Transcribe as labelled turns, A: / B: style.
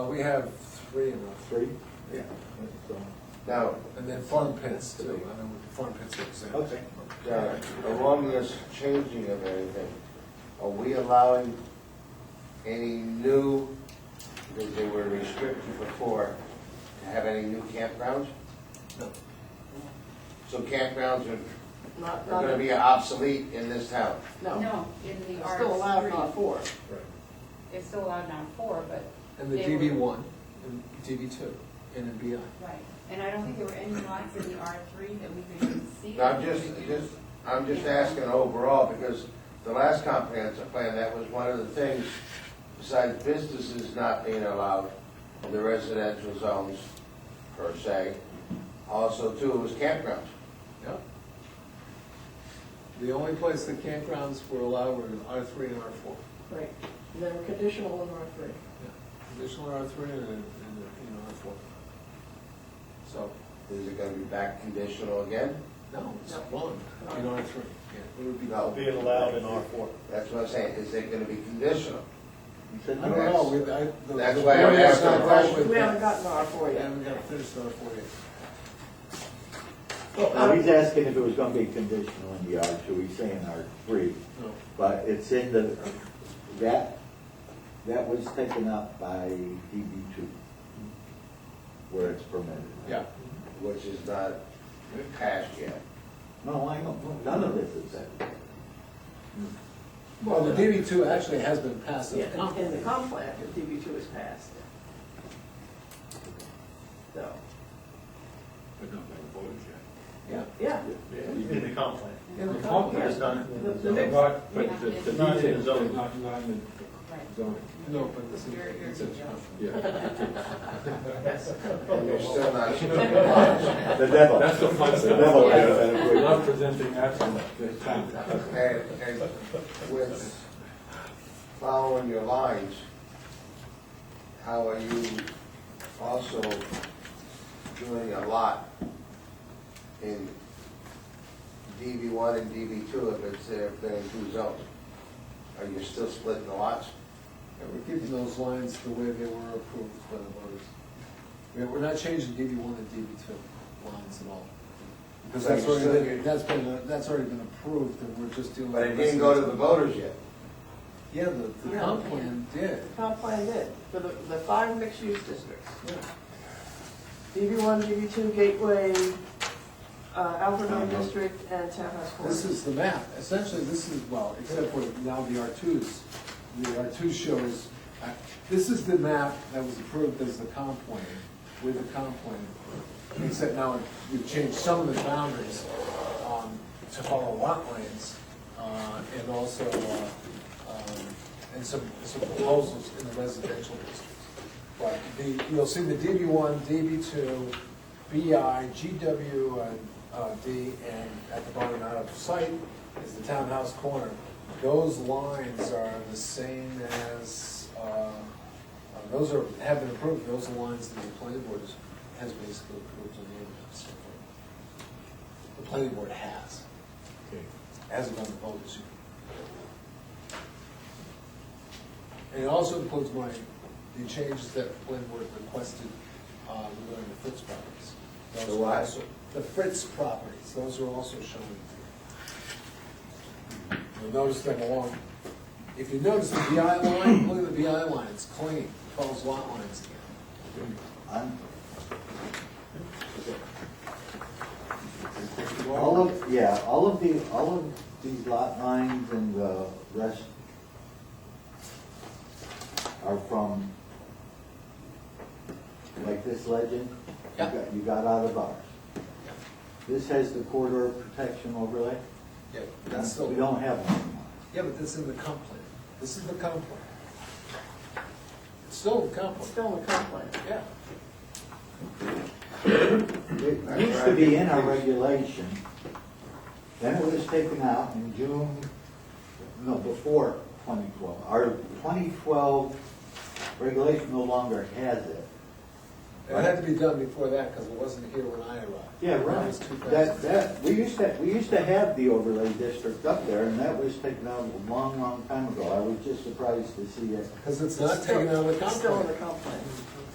A: Uh, We have three in our,
B: Three?
A: yeah,
B: So,
C: Now,
A: and then farm pits too, I know farm pits are exempt.
B: Okay.
C: uh, along this changing of anything, are we allowing any new, because they were restricted before, to have any new campgrounds?
A: No.
C: So campgrounds are are
D: Not, not,
C: gonna be obsolete in this town.
D: no,
E: No, in the
D: it's
E: R
D: still allowed not
E: three.
D: four.
A: Right.
E: It's still allowed not four, but.
A: And the
E: they
A: DB
E: were-
A: one, and DB two, and then BI.
E: Right, and I don't think there were any lots in the R three that we could even see.
C: Now, I'm just, just, I'm just asking overall, because the last comprehensive plan, that was one of the things, besides businesses not being allowed in the residential zones per se, also too, was campgrounds.
A: Yep. The only place the campgrounds were allowed were in R three and R four.
D: Right, and then conditional in R three.
A: Additional R three and, and, you know, R four. So,
C: Is it gonna be back conditional again?
A: no, it's one in R three, yeah, it would be.
C: No.
F: Being allowed in R four.
C: That's what I'm saying, is it gonna be conditional?
B: You said
A: I don't know, we, I. the-
C: That's why I'm
A: the board has
C: asking
A: not
C: the
A: dealt
C: question.
A: with
D: We haven't
A: that.
D: gotten to R four
A: We
D: yet.
A: haven't got finished R four yet. Oh,
B: Now, he's asking if it was gonna be conditional in the R two, he's saying R three,
A: No.
B: but it's in the, that, that was taken up by DB two, where it's permitted.
A: Yeah.
C: Which is not passed yet.
B: No, I don't, none of this is that.
A: Well, the DB two actually has been passed. as a
D: Yeah, in
A: compromise.
D: the comp plan, if DB two is passed. So,
G: But not by the voters yet.
A: Yeah.
D: yeah,
F: In the comp plan.
A: In the
D: comp plan.
F: It's not,
D: the, the next,
G: But, but the the
F: Not in
G: details,
F: zoning.
G: not, not in the
E: Right.
G: zoning,
A: No, but this is.
E: You're- you're-
A: it's a-
E: yeah.
G: yeah.
C: And you're still not sure. And
B: The devil.
G: That's the fun
B: The devil
G: stuff.
B: has that
G: We're
B: agreement.
G: not presenting that from the town.
C: and with following your lines, how are you also doing a lot in DB one and DB two if it's, if they're in two zones? Are you still splitting the lots?
A: Yeah, We're keeping those lines the way they were approved by the voters. We're- We're not changing DB one and DB two lines at all. Because that's
C: But you're
A: already,
C: still-
A: been- that's been, that's already been approved and we're just dealing.
C: But it
A: with
C: didn't go to the
A: residential.
C: voters yet.
A: Yeah, the, the
D: Yeah.
A: comp plan did.
D: comp plan did, for the, the five mixed-use districts.
A: Yeah.
D: DB one, DB two, Gateway, uh, Alpharetta
B: Uh-huh.
D: District, and Townhouse Corner.
A: This is the map. Essentially, this is, well, except for now the R2s. The R2 shows, uh, this is the map that was approved as the comp plan, with the comp plan approved. Except now we've changed some of the boundaries um, to follow lot lines uh, and also, uh, um, and some some proposals in the residential districts. But the, you'll see the DB one, DB two, BI, GW, and uh, D, and at the bottom out of sight is the townhouse corner. Those lines are the same as, uh, uh, those are, have been approved, those are lines that the planning board has- has basically approved on the end of so forth. The planning board has,
G: Okay.
A: hasn't done the voters yet. And it also includes my, the changes that the planning board requested uh, regarding the Fritz properties. Those
C: The
A: are
C: what?
A: also- The Fritz properties, those are also shown in here. You'll notice them along, if you notice the BI line, look at the BI line, it's clean, follows lot lines again.
B: I'm- All of, yeah, all of the, all of these lot lines and the rest are from, like this legend?
A: Yeah.
B: You got- You got out of ours. This has the corridor protection overlay?
A: Yeah, that's
B: We
A: still,
B: don't have one anymore.
A: yeah, but that's in the comp plan, this is the comp plan. It's still the comp
D: It's
A: plan,
D: still in the comp plan.
A: yeah.
B: It used to be in our regulation, then it was taken out in June, no, before 2012. Our 2012 regulation no longer has it.
A: It had to be done before that, because it wasn't here when I arrived.
B: Yeah,
A: That
B: right.
A: was two
B: That,
A: thousand.
B: that, we used to, we used to have the overlay district up there, and that was taken out a long, long time ago. I was just surprised to see it.
A: Because it's not taken out of the
D: Still in the
A: comp
D: comp plan.